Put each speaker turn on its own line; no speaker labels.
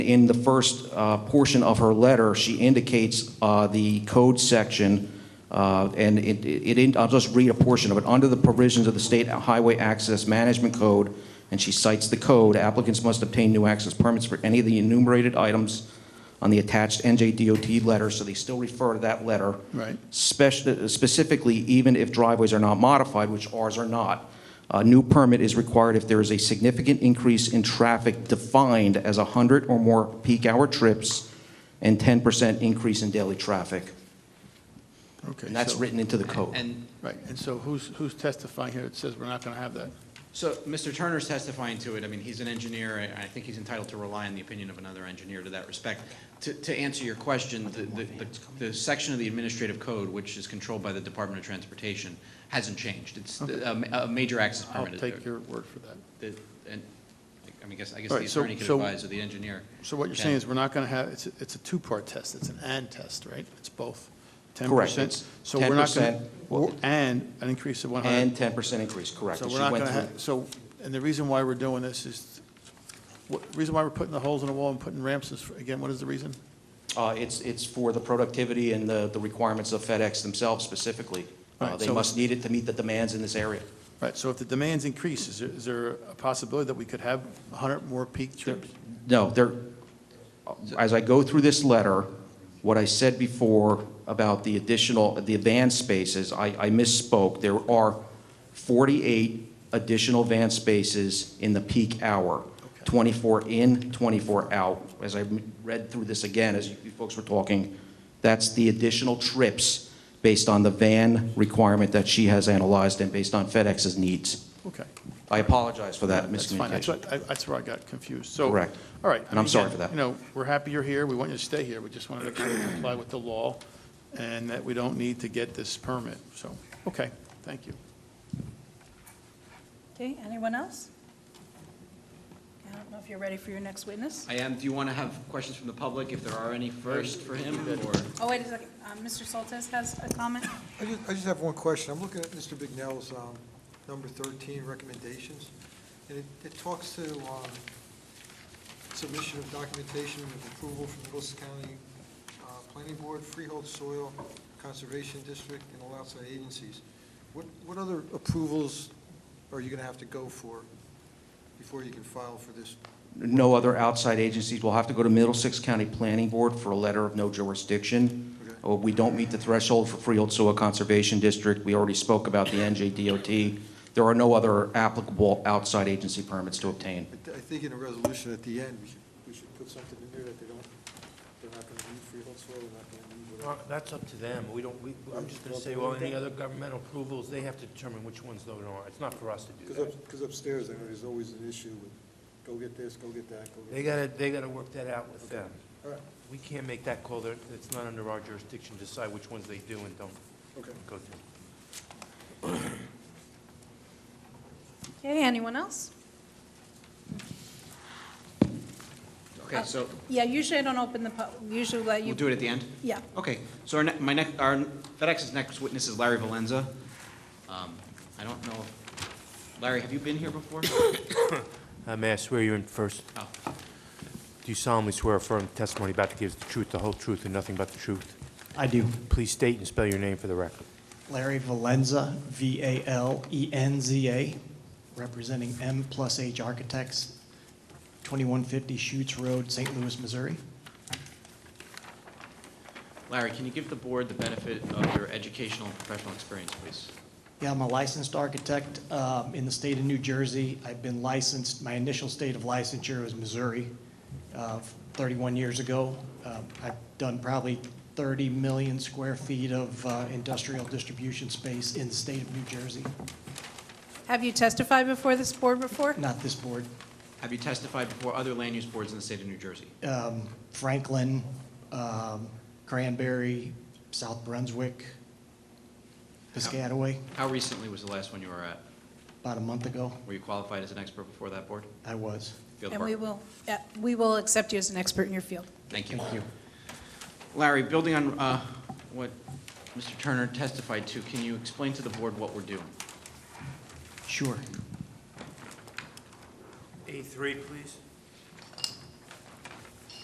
In the first uh, portion of her letter, she indicates uh, the code section, uh, and it- it, it- I'll just read a portion of it. Under the provisions of the State Highway Access Management Code, and she cites the code, applicants must obtain new access permits for any of the enumerated items on the attached NJDOT letter, so they still refer to that letter.
Right.
Spec- Specifically, even if driveways are not modified, which ours are not, a new permit is required if there is a significant increase in traffic defined as 100 or more peak hour trips and 10% increase in daily traffic.
Okay.
And that's
so-
written into the code.
And
Right, and so who's, who's testifying here that says we're not going to have that?
so Mr. Turner's testifying to it. I mean, he's an engineer. I, I think he's entitled to rely on the opinion of another engineer to that respect. To, to answer your question, the, the, the- the section of the administrative code, which is controlled by the Department of Transportation, hasn't changed. It's the- a, ma- a major access
I'll
permit. is
take
there.
your word for that.
The- And, I mean, I guess, I guess
All
the
right, so-
attorney could
so-
advise or the engineer.
So what you're
can.
saying is we're not going to have, it's, it's a two-part test, it's an and test, right? It's both. 10%?
Correct, it's
So we're not gonna-
10%,
we're- And an increase of 100.
And 10% increase, correct.
uh-huh. So
And
we're
she
not
went
going to
through-
have, so, and the reason why we're doing this is, what, reason why we're putting the holes in the wall and putting ramps is, again, what is the reason?
Uh, It's, it's for the productivity and the the requirements of FedEx themselves specifically. Uh,
Right,
They
so-
must need it to meet the demands in this area.
Right, so if the demands increase, is there, is there a possibility that we could have 100 more peak trips?
No, there, as I go through this letter, what I said before about the additional, the van spaces, I, I misspoke. There are 48 additional van spaces in the peak hour, 24 in, 24 out. As I read through this again, as you folks were talking, that's the additional trips based on the van requirement that she has analyzed and based on FedEx's needs.
Okay.
I apologize for that
That's fine. That's
miscommunication.
what, I- that's where I got confused. So,
Correct.
All right. I
And I'm
mean,
sorry
again,
for that.
You know, we're happy you're here. We want you to stay here. We just want to make sure you comply with the law and that we don't need to get this permit. So, okay, thank you.
Okay, anyone else? I don't know if you're ready for your next witness.
I am, do you want to have questions from the public, if there are any first for him, or?
Oh, wait a second, Um, Mr. Soltis has a comment?
I just, I just have one question. I'm looking at Mr. Bignell's, um, number thirteen recommendations, and it, it talks to, um, submission of documentation with approval from the Wilson County, uh, Planning Board, Freehold Soil Conservation District, and all outside agencies. What, what other approvals are you gonna have to go for before you can file for this?
No other outside agencies. We'll have to go to Middlesex County Planning Board for a letter of no jurisdiction.
Okay.
Uh, We don't meet the threshold for Freehold Soil Conservation District. We already spoke about the NJDOT. There are no other applicable outside agency permits to obtain.
I, th- I think in a resolution at the end, we should, we should put something in there that they don't, they're not gonna need freehold soil, they're not gonna need whatever.
Well, That's up to them. We don't, we, I'm just gonna say, well, any other governmental approvals, they have to determine which ones they don't. It's not for us to do that.
Because upstairs, I know there's always an issue with, go get this, go get that, go
They
get
gotta, they gotta work that out with them.
that. All right,
We can't make that call. They're- It's not under our jurisdiction to decide which ones they do and don't
okay.
go through.
Okay, anyone else?
Okay, so,
Yeah, usually I don't open the, pub- usually let
we'll
you,
do it at the end?
yeah.
Okay, so our, ne- my next, our FedEx's next witness is Larry Valenza. Um, I don't know, if- Larry, have you been here before?
Uh, May I swear you in first?
Oh.
Do you solemnly swear or affirm the testimony about to give is the truth, the whole truth, and nothing but the truth?
I do.
Please state and spell your name for the record.
Larry Valenza, E V-A-L-E-N-Z-A, representing M Plus H Architects, 2150 Schutz Road, St. Louis, Missouri.
Larry, can you give the board the benefit of your educational and professional experience, please?
Yeah, I'm a licensed architect um, in the state of New Jersey. I've been licensed, my initial state of licensure was Missouri uh, 31 years ago. Um, I've done probably 30 million square feet of uh, industrial distribution space in the state of New Jersey,
Have you testified before this board before?
not this board.
Have you testified before other land use boards in the state of New Jersey?
um, Franklin, um, Cranberry, South Brunswick, Piscataway,
How recently was the last one you were at?
about a month ago,
Were you qualified as an expert before that board?
I was.
Field
And
work.
we will, yeah, we will accept you as an expert in your field.
Thank you.
Thank you.
Larry, building on uh, what Mr. Turner testified to, can you explain to the board what we're doing?
Sure.
A3, please.